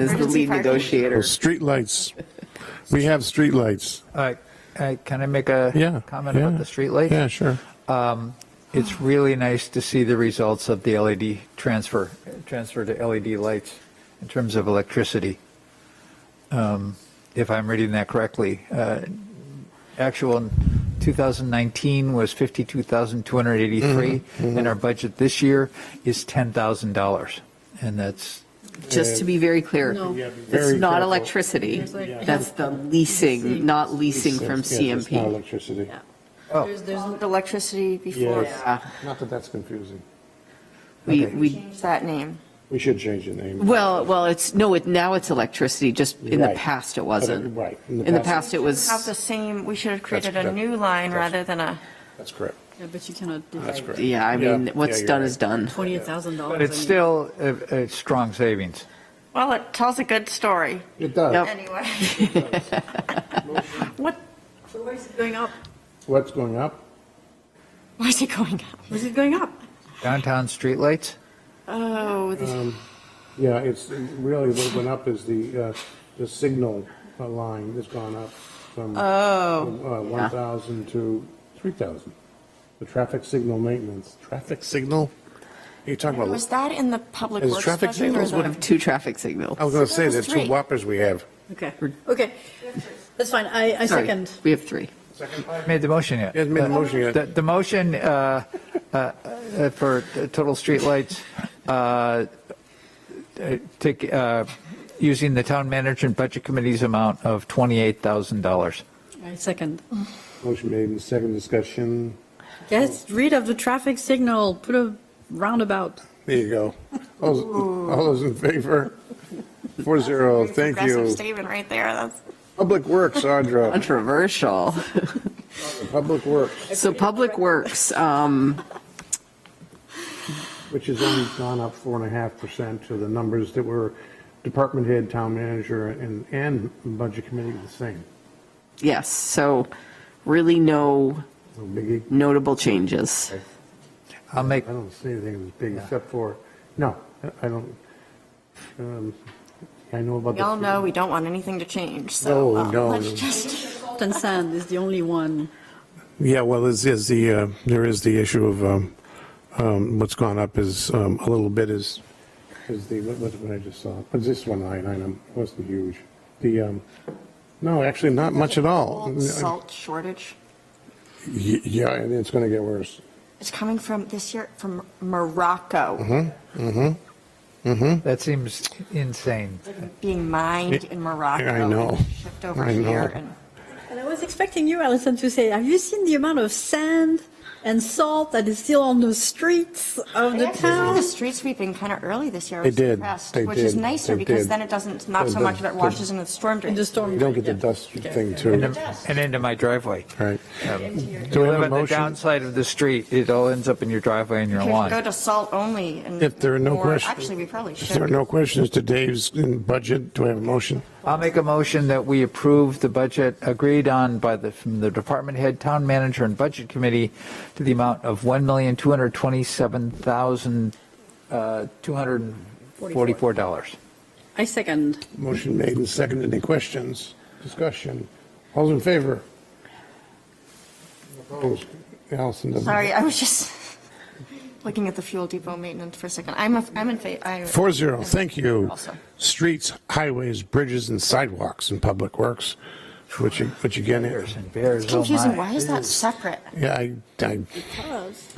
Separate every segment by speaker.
Speaker 1: as the lead negotiator.
Speaker 2: Streetlights. We have streetlights.
Speaker 3: Uh, uh, Can I make a
Speaker 2: Yeah.
Speaker 3: comment
Speaker 2: yeah.
Speaker 3: about the streetlight?
Speaker 2: Yeah, sure.
Speaker 3: It's really nice to see the results of the LED transfer, transfer to LED lights in terms of electricity. Um, If I'm reading that correctly, uh, actual in 2019 was 52,283,
Speaker 2: Mm-hmm.
Speaker 3: and our budget this year is $10,000. And that's,
Speaker 1: Just to be very clear,
Speaker 2: very
Speaker 1: it's not
Speaker 2: careful.
Speaker 1: electricity. That's the leasing, not leasing from
Speaker 2: Yeah, it's Not
Speaker 1: CMP.
Speaker 2: electricity.
Speaker 4: Oh.
Speaker 5: There's, there's electricity before.
Speaker 2: Yes. Not that that's
Speaker 1: Uh,
Speaker 2: confusing.
Speaker 1: We,
Speaker 3: Okay.
Speaker 1: we,
Speaker 5: Change that name.
Speaker 2: We should change the name.
Speaker 1: well, well, it's, no, it, now it's electricity, just in the
Speaker 2: Right.
Speaker 1: past it
Speaker 2: But it-
Speaker 1: wasn't.
Speaker 2: right. In the
Speaker 1: In the
Speaker 2: past-
Speaker 1: past it
Speaker 5: Have the
Speaker 1: was,
Speaker 5: same, we should have created
Speaker 2: That's-
Speaker 5: a
Speaker 2: that-
Speaker 5: new line
Speaker 2: that's-
Speaker 5: rather than a,
Speaker 2: That's correct.
Speaker 4: Yeah, but you cannot
Speaker 2: That's
Speaker 4: divide
Speaker 2: correct.
Speaker 1: yeah, I mean,
Speaker 2: Yeah,
Speaker 1: what's
Speaker 2: you're
Speaker 1: done
Speaker 2: right.
Speaker 1: is done.
Speaker 4: twenty-eight thousand dollars.
Speaker 3: but it's still a a strong savings.
Speaker 5: well, it tells a good story,
Speaker 2: It does.
Speaker 1: Yep.
Speaker 5: anyway. What,
Speaker 4: Why is it going up?
Speaker 2: What's going up?
Speaker 5: why is it going up?
Speaker 4: Why is it going up?
Speaker 3: Downtown streetlights?
Speaker 5: Oh, this-
Speaker 2: Yeah, it's really what went up is the, uh, the signal uh, line that's gone up from from,
Speaker 1: Oh.
Speaker 2: uh, 1,000 to 3,000. The traffic signal maintenance. Traffic signal? You're talking
Speaker 5: was that in the public
Speaker 2: Is
Speaker 5: works
Speaker 2: traffic
Speaker 5: budget or
Speaker 2: signals
Speaker 5: the?
Speaker 2: what- Oh,
Speaker 1: Two traffic signals.
Speaker 2: I was going to say,
Speaker 5: That was
Speaker 2: there's two
Speaker 5: three.
Speaker 2: whoppers we have.
Speaker 4: Okay, okay. That's fine. I, I
Speaker 1: Sorry,
Speaker 4: second.
Speaker 1: We have three.
Speaker 3: Made the motion yet?
Speaker 2: He hasn't made the motion yet.
Speaker 3: The, the motion uh, uh, uh, for total streetlights, uh, uh, take, uh, using the town manager and budget committee's amount of $28,000.
Speaker 4: I second.
Speaker 2: Motion made in the second discussion.
Speaker 4: Get rid of the traffic signal, put a roundabout.
Speaker 2: There you go. All those- all those in favor? Four zero, thank
Speaker 5: Progressive
Speaker 2: you.
Speaker 5: statement right there, that's.
Speaker 2: Public Works, Audra,
Speaker 1: Controversial.
Speaker 2: Public Works,
Speaker 1: So Public Works, um,
Speaker 2: which has only gone up four and a half percent to the numbers that were department head, town manager, and, and budget committee the same.
Speaker 1: yes, so really no
Speaker 2: No biggie.
Speaker 1: notable changes.
Speaker 3: I'll make,
Speaker 2: I don't see anything that's big except for, no, I don't, um, I know about
Speaker 5: We
Speaker 2: the.
Speaker 5: all know we don't want anything to change, so
Speaker 2: No,
Speaker 5: um,
Speaker 2: no,
Speaker 5: let's
Speaker 2: no.
Speaker 5: just,
Speaker 4: Salt and sand is the only one.
Speaker 2: Yeah, well, is, is the, uh, there is the issue of, um, um, what's gone up is, um, a little bit is, is the, what, what- what I just saw, was this one line item, it wasn't huge. The, um, no, actually, not much at all.
Speaker 5: Old salt shortage.
Speaker 2: Y- Yeah, and it's gonna get worse.
Speaker 5: It's coming from this year, from
Speaker 2: Mm-hmm.
Speaker 5: Morocco,
Speaker 3: Mm-hmm. that seems insane.
Speaker 5: being mined in Morocco.
Speaker 2: I know.
Speaker 5: and Shipped over
Speaker 2: I know.
Speaker 5: here and.
Speaker 4: And I was expecting you, Alison, to say, have you seen the amount of sand and salt that is still on the streets of
Speaker 5: They
Speaker 4: the
Speaker 5: actually started
Speaker 4: town?
Speaker 5: The street sweeping kind of early this year. I
Speaker 2: They
Speaker 5: was
Speaker 2: did.
Speaker 5: impressed,
Speaker 2: They
Speaker 5: Which is
Speaker 2: did.
Speaker 5: nicer
Speaker 2: They
Speaker 5: because
Speaker 2: did.
Speaker 5: then it doesn't, it's not
Speaker 2: They
Speaker 5: so
Speaker 2: did.
Speaker 5: much that
Speaker 2: They-
Speaker 5: washes into the storm
Speaker 4: In
Speaker 5: drain.
Speaker 4: the storm.
Speaker 2: You don't get the
Speaker 4: yeah.
Speaker 2: dust
Speaker 4: Okay.
Speaker 2: thing too,
Speaker 3: And and into my driveway.
Speaker 2: right?
Speaker 3: You
Speaker 2: Do we have
Speaker 3: live
Speaker 2: a
Speaker 3: on the
Speaker 2: motion?
Speaker 3: downside of the street, it all ends up in your driveway and your
Speaker 5: We should Go
Speaker 3: lawn.
Speaker 5: to salt only and.
Speaker 2: If there are no
Speaker 5: or-
Speaker 2: questions-
Speaker 5: Actually, we probably
Speaker 2: If there are
Speaker 5: should.
Speaker 2: no questions to Dave's budget, do I have a motion?
Speaker 3: I'll make a motion that we approve the budget agreed on by the, from the department head, town manager, and budget committee to the amount of uh, $1,227,244.
Speaker 4: I second.
Speaker 2: Motion made and seconded. Any questions? Discussion? All's in favor? Opposed? Allison doesn't.
Speaker 5: Sorry, I was just looking at the fuel depot maintenance for a second. I'm, a- I'm in favor.
Speaker 2: Four zero, thank you.
Speaker 5: Also.
Speaker 2: Streets, highways, bridges, and sidewalks in public works, which, which again,
Speaker 3: Bears
Speaker 2: is-
Speaker 3: and bears, oh
Speaker 5: Confusing,
Speaker 3: my.
Speaker 5: why is that separate?
Speaker 2: yeah, I, I,
Speaker 4: Because,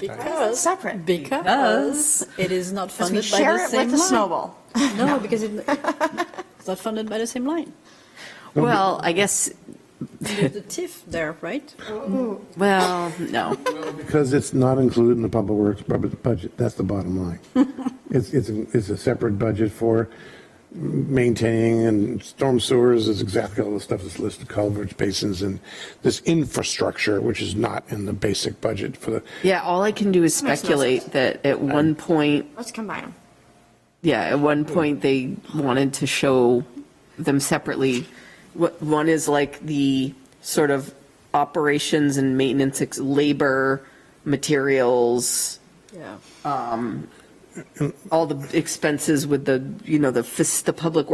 Speaker 5: It's separate.
Speaker 4: because it is not
Speaker 5: Because we
Speaker 4: funded by
Speaker 5: share it
Speaker 4: the
Speaker 5: with
Speaker 4: same
Speaker 5: the
Speaker 4: line.
Speaker 5: snowball.
Speaker 4: No, because it, it's not funded by the same line.
Speaker 1: Well, I guess,
Speaker 4: There's the TIF there, right?
Speaker 1: well, no.
Speaker 2: because it's not included in the public works bu- budget, that's the bottom line. It's, it's, it's a separate budget for maintaining and storm sewers is exactly all the stuff that's listed, culverts, basins, and this infrastructure, which is not in the basic budget for the,
Speaker 1: Yeah, all I can do is
Speaker 5: Makes no sense.
Speaker 1: speculate that at one point,
Speaker 5: Let's combine them.
Speaker 1: yeah, at one point, they wanted to show them separately. What, one is like the sort of operations and maintenance, ex- labor, materials,
Speaker 4: Yeah.
Speaker 1: all the expenses with the, you know, the, fac- the public works